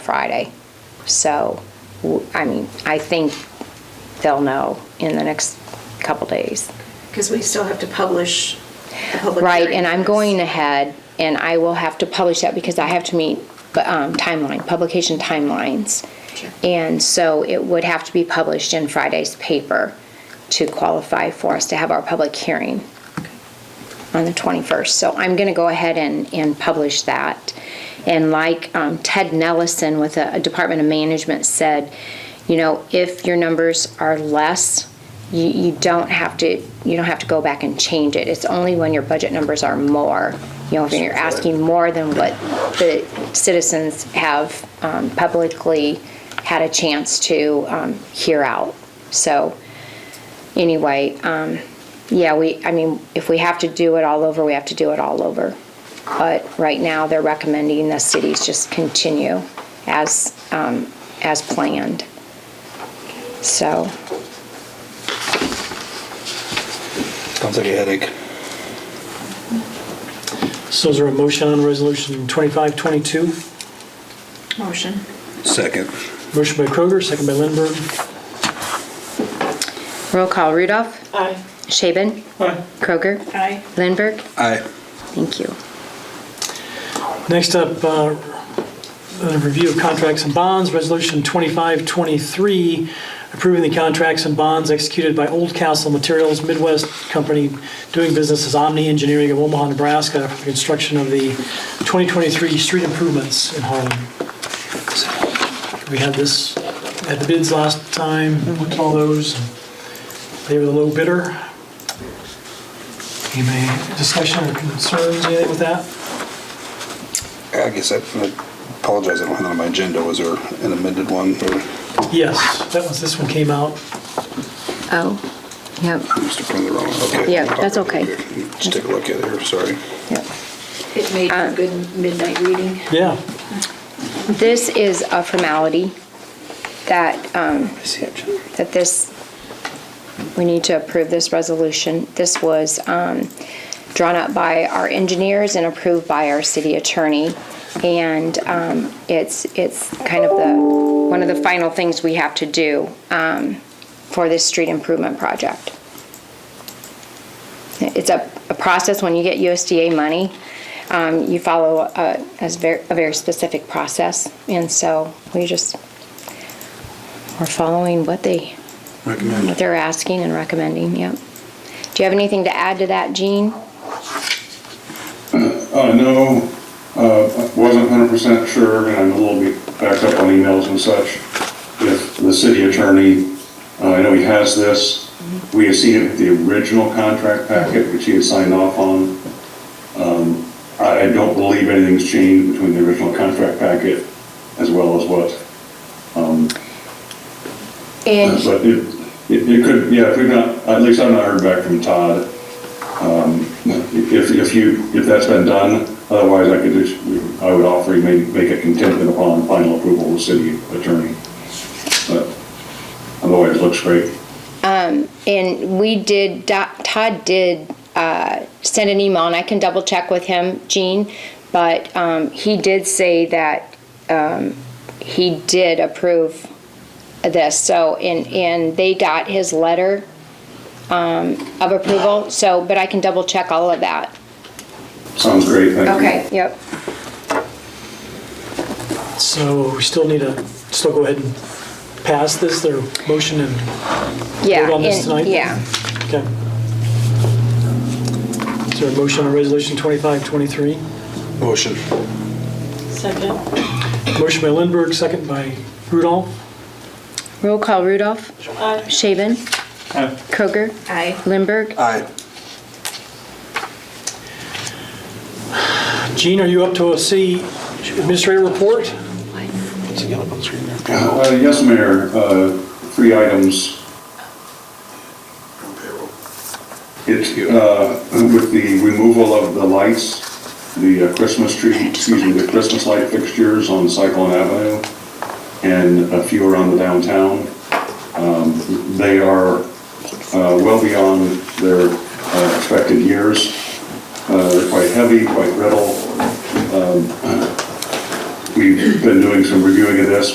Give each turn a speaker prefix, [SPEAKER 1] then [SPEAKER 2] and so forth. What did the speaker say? [SPEAKER 1] Friday. So, w- I mean, I think they'll know in the next couple days.
[SPEAKER 2] Because we still have to publish the public
[SPEAKER 1] Right,
[SPEAKER 2] hearing
[SPEAKER 1] and I'm
[SPEAKER 2] notice.
[SPEAKER 1] going ahead, and I will have to publish that because I have to meet um, timeline, publication timelines.
[SPEAKER 2] Sure.
[SPEAKER 1] And so it would have to be published in Friday's paper to qualify for us to have our public hearing on the 21st. So I'm going to go ahead and, and publish that. And like um, Ted Nellison with the Department of Management said, you know, if your numbers are less, you, you don't have to, you don't have to go back and change it. It's only when your budget numbers are more, you know, if you're asking more than what the citizens have um, publicly had a chance to um, hear out. So anyway, um, yeah, we, I mean, if we have to do it all over, we have to do it all over. But right now, they're recommending the cities just continue as, um, as planned. So,
[SPEAKER 3] Sounds like a headache.
[SPEAKER 4] So is there a motion on Resolution 2522?
[SPEAKER 2] Motion.
[SPEAKER 3] Second.
[SPEAKER 4] Motion by Kroger, second by Lindberg.
[SPEAKER 1] roll call Rudolph,
[SPEAKER 2] Aye.
[SPEAKER 1] Shaven,
[SPEAKER 4] Aye.
[SPEAKER 1] Kroger,
[SPEAKER 2] Aye.
[SPEAKER 1] Lindberg.
[SPEAKER 3] Aye.
[SPEAKER 1] Thank you.
[SPEAKER 4] Next up, uh, a review of contracts and bonds, Resolution 2523, approving the contracts and bonds executed by Old Castle Materials Midwest Company doing business as Omni Engineering of Omaha, Nebraska for the construction of the 2023 street improvements in Harlem. We had this, had the bids last time, looked at all those. They were the low bidder. Any discussion or concerns, anything with that?
[SPEAKER 3] I guess I apologize, I don't have that on my agenda. Was there an amended one? or-
[SPEAKER 4] Yes, that was, this one came out.
[SPEAKER 1] Oh, yep,
[SPEAKER 3] I must have printed the wrong one. Okay.
[SPEAKER 1] Yeah, that's okay.
[SPEAKER 3] Let's take a look at it here, sorry.
[SPEAKER 1] yep.
[SPEAKER 2] It made
[SPEAKER 1] Uh,
[SPEAKER 2] for good midnight reading.
[SPEAKER 4] Yeah,
[SPEAKER 1] This is a formality that, um,
[SPEAKER 3] I see it.
[SPEAKER 1] that this, we need to approve this resolution. This was um, drawn up by our engineers and approved by our city attorney. And um, it's, it's kind of the, one of the final things we have to do um, for this street improvement project. It's a, a process, when you get USDA money, um, you follow a, a very, a very specific process. And so we just, we're following what they what
[SPEAKER 3] Recommend.
[SPEAKER 1] they're asking and recommending, yep. Do you have anything to add to that, Gene?
[SPEAKER 5] I know, uh, wasn't hundred percent sure, and I'm a little bit backed up on emails and such. If the city attorney, uh, I know he has this, we have seen it with the original contract packet, which he had signed off on. Um, I I don't believe anything's changed between the original contract packet as well as what
[SPEAKER 1] And,
[SPEAKER 5] Uh, But it, it it could, yeah, if we've not, at least I've not heard back from Todd. Um, If, if you, if that's been done, otherwise I could just, I would offer you may make it contingent upon final approval of the city attorney. But otherwise, it looks great.
[SPEAKER 1] and we did, Do- Todd did uh, send an email, and I can double check with him, Gene, but um, he did say that um, he did approve this, so, and, and they got his letter um, of approval, so, but I can double check all of that.
[SPEAKER 5] Sounds great, thank you.
[SPEAKER 1] Yep.
[SPEAKER 4] so we still need to, still go ahead and pass this, their motion and
[SPEAKER 1] Yeah.
[SPEAKER 4] vote on this
[SPEAKER 1] and-
[SPEAKER 4] tonight?
[SPEAKER 1] Yeah.
[SPEAKER 4] Okay. Is there a motion on Resolution 2523?
[SPEAKER 3] Motion.
[SPEAKER 6] Second.
[SPEAKER 4] Motion by Lindberg, second by Rudolph.
[SPEAKER 1] Roll call Rudolph.
[SPEAKER 6] Aye.
[SPEAKER 1] Shaven. Kroger.
[SPEAKER 2] Aye.
[SPEAKER 1] Lindberg.
[SPEAKER 3] Aye.
[SPEAKER 4] Gene, are you up to a C administrator report?
[SPEAKER 3] It's a yellow on the screen there.
[SPEAKER 5] Uh, Yes, Mayor, uh, three items. It's uh, with the removal of the lights, the uh, Christmas tree, excuse me, the Christmas light fixtures on Cyclone Avenue and a few around the downtown. Um, They are uh, well beyond their uh, expected years. Uh, They're quite heavy, quite brittle. We've been Um, doing some reviewing of this,